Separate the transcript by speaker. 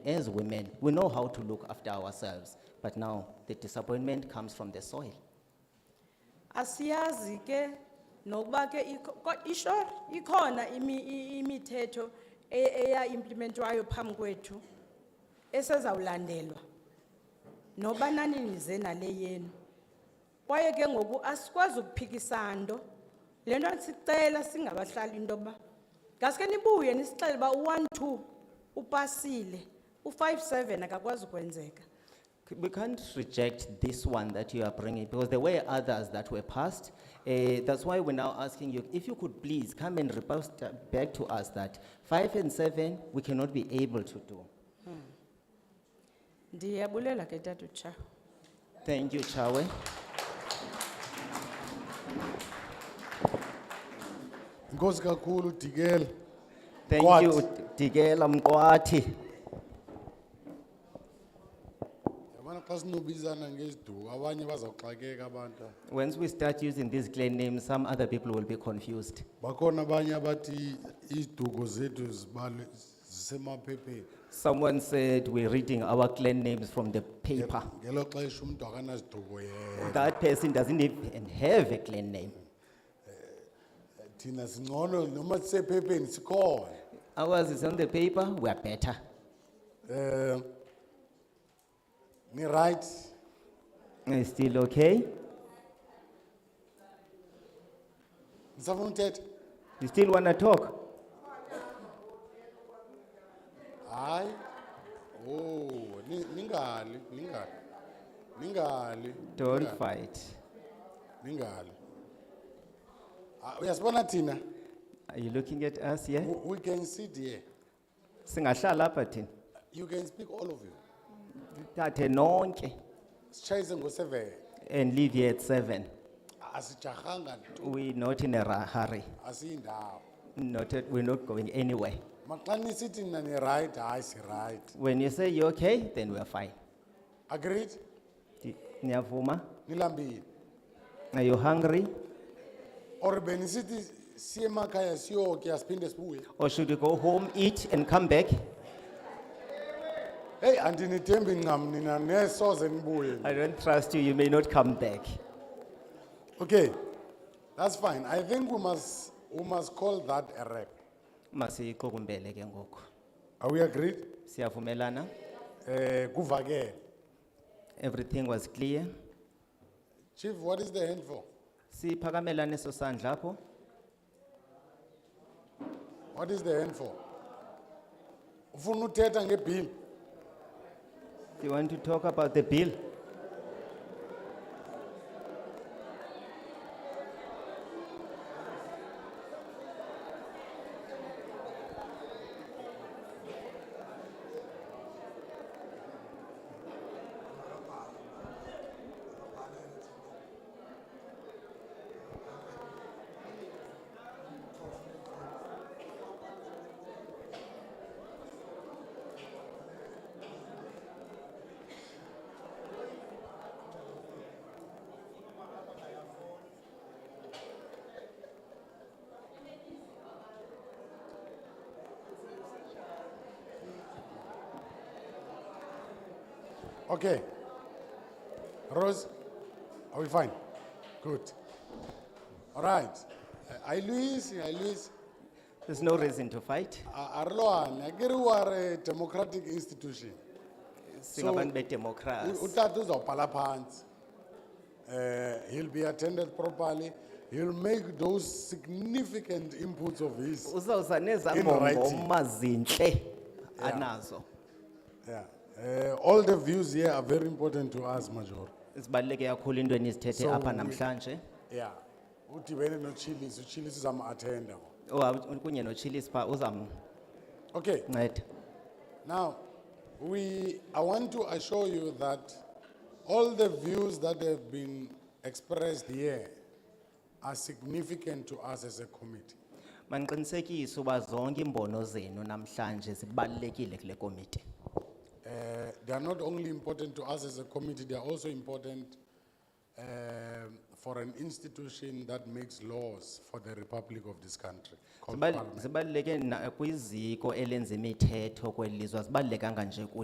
Speaker 1: as women, we know how to look after ourselves, but now the disappointment comes from the soil.
Speaker 2: Asiyazi ke, nokuba ke, iko- ko- isho, ikona imi, i- imithetho e- eya implementwayo phambi kwethu esezawulandelwa noba nani nize nale yenu kwaye ke ngoku asikwazi ukuphikisa nto le nto sicela singabahlali into yoba ngaske nibuye nisixele uba u-one two upasile u-five seven akakwazi ukwenzeka
Speaker 1: C- We can't reject this one that you are bringing because there were others that were passed. Eh, that's why we're now asking you if you could please come and report uh, back to us that five and seven we cannot be able to do.
Speaker 2: ndiyabulela ke tata utshawo
Speaker 1: Thank you, Chawe.
Speaker 3: Inkosi kakhulu Dikela.
Speaker 1: Thank
Speaker 3: Mqwathi.
Speaker 1: you, Tigela Mkwati.
Speaker 3: Yabona xa sinobizana ngeziduko abanye bazawuxakeka abantu.
Speaker 1: Once we start using these clan names, some other people will be confused.
Speaker 3: Bakhona abanye abathi iziduko zethu zibale zisemaphepheni.
Speaker 1: Someone said we're reading our clan names from the paper.
Speaker 3: Ngelo xesha umuntu akanaziduko yena.
Speaker 1: That person doesn't even have a clan name.
Speaker 3: Thina singcono noma sisephepheni sikhona.
Speaker 1: Ours is on the paper, we are better.
Speaker 3: Eh Ni right?
Speaker 1: It's still okay?
Speaker 3: Nisafuna uthetha?
Speaker 1: You still want to talk?
Speaker 3: Hayi. Oh, ni- ningali, ningali. Ningali.
Speaker 1: Don't
Speaker 3: ningali.
Speaker 1: fight.
Speaker 3: Ningali. Ah, Uyasibona thina?
Speaker 1: Are you looking at us here?
Speaker 3: W- We can sit here.
Speaker 1: Singahlala apha thina.
Speaker 3: You can speak all of you.
Speaker 1: Thathe nonke
Speaker 3: Sitshayise ngo-seven.
Speaker 1: and leave here at seven.
Speaker 3: Asijahanga tu,
Speaker 1: We're not in a ra- hurry.
Speaker 3: asiyindawo.
Speaker 1: Not at, we're not going anywhere.
Speaker 3: Maxa nisithi nina ni-right, hayi si-right.
Speaker 1: When you say you're okay, then we're fine.
Speaker 3: Agreed?
Speaker 1: Di- Niyavuma?
Speaker 3: Nilambile.
Speaker 1: Are you hungry?
Speaker 3: Or benisithi siye emakhaya siyokya siphinde sibuye.
Speaker 1: Or should you go home, eat, and come back?
Speaker 3: Hey, andinithembi ncam nina nesoze nibuye.
Speaker 1: I don't trust you. You may not come back.
Speaker 3: Okay, that's fine. I think we must, we must call that a wrap.
Speaker 1: Masiyixukumbele ke ngoku.
Speaker 3: Are we agreed?
Speaker 1: Siyavumelana?
Speaker 3: Eh, kuvakele.
Speaker 1: Everything was clear.
Speaker 3: Chief, what is the hand for?
Speaker 1: Siphakamelane eso sandla apho.
Speaker 3: What is the hand for? Ufuna uthetha ngebill?
Speaker 1: Do you want to talk about the bill?
Speaker 3: Okay. Rose, are we fine? Good. All right. Eh, Ayilwisi, ayilwisi.
Speaker 1: There's no reason to fight.
Speaker 3: Arloan, akere we are a democratic institution.
Speaker 1: Singabantu
Speaker 3: U-
Speaker 1: bedemokrasi.
Speaker 3: Utata uzawubhala phansi. Eh, he'll be attended properly. He'll make those significant inputs of his.
Speaker 1: Uzawuza nezangoma
Speaker 3: writing.
Speaker 1: umazinhle anazo.
Speaker 3: Yeah. Eh, all the views here are very important to us, Major.
Speaker 1: Sibaluleke kakhulu into enizithethe
Speaker 3: So
Speaker 1: apha
Speaker 3: we-
Speaker 1: namhlanje.
Speaker 3: Yeah. Udibene noChillis, uChillis uzama-attenda.
Speaker 1: Oh, kunye noChillis pha uzamnceda.
Speaker 3: Okay, now, we, I want to assure you that all the views that have been expressed here are significant to us as a committee.
Speaker 1: Manqinisekise uba zonke imbono zenu namhlanje zibalulekile kule komiti.
Speaker 3: Uh, they are not only important to us as a committee, they are also important um, for an institution that makes laws for the republic of this country called
Speaker 1: Zibal-
Speaker 3: parliament.
Speaker 1: Zibaluleke na kwiziko elenza imithetho kweli lizwe azibalulekanga nje kuthi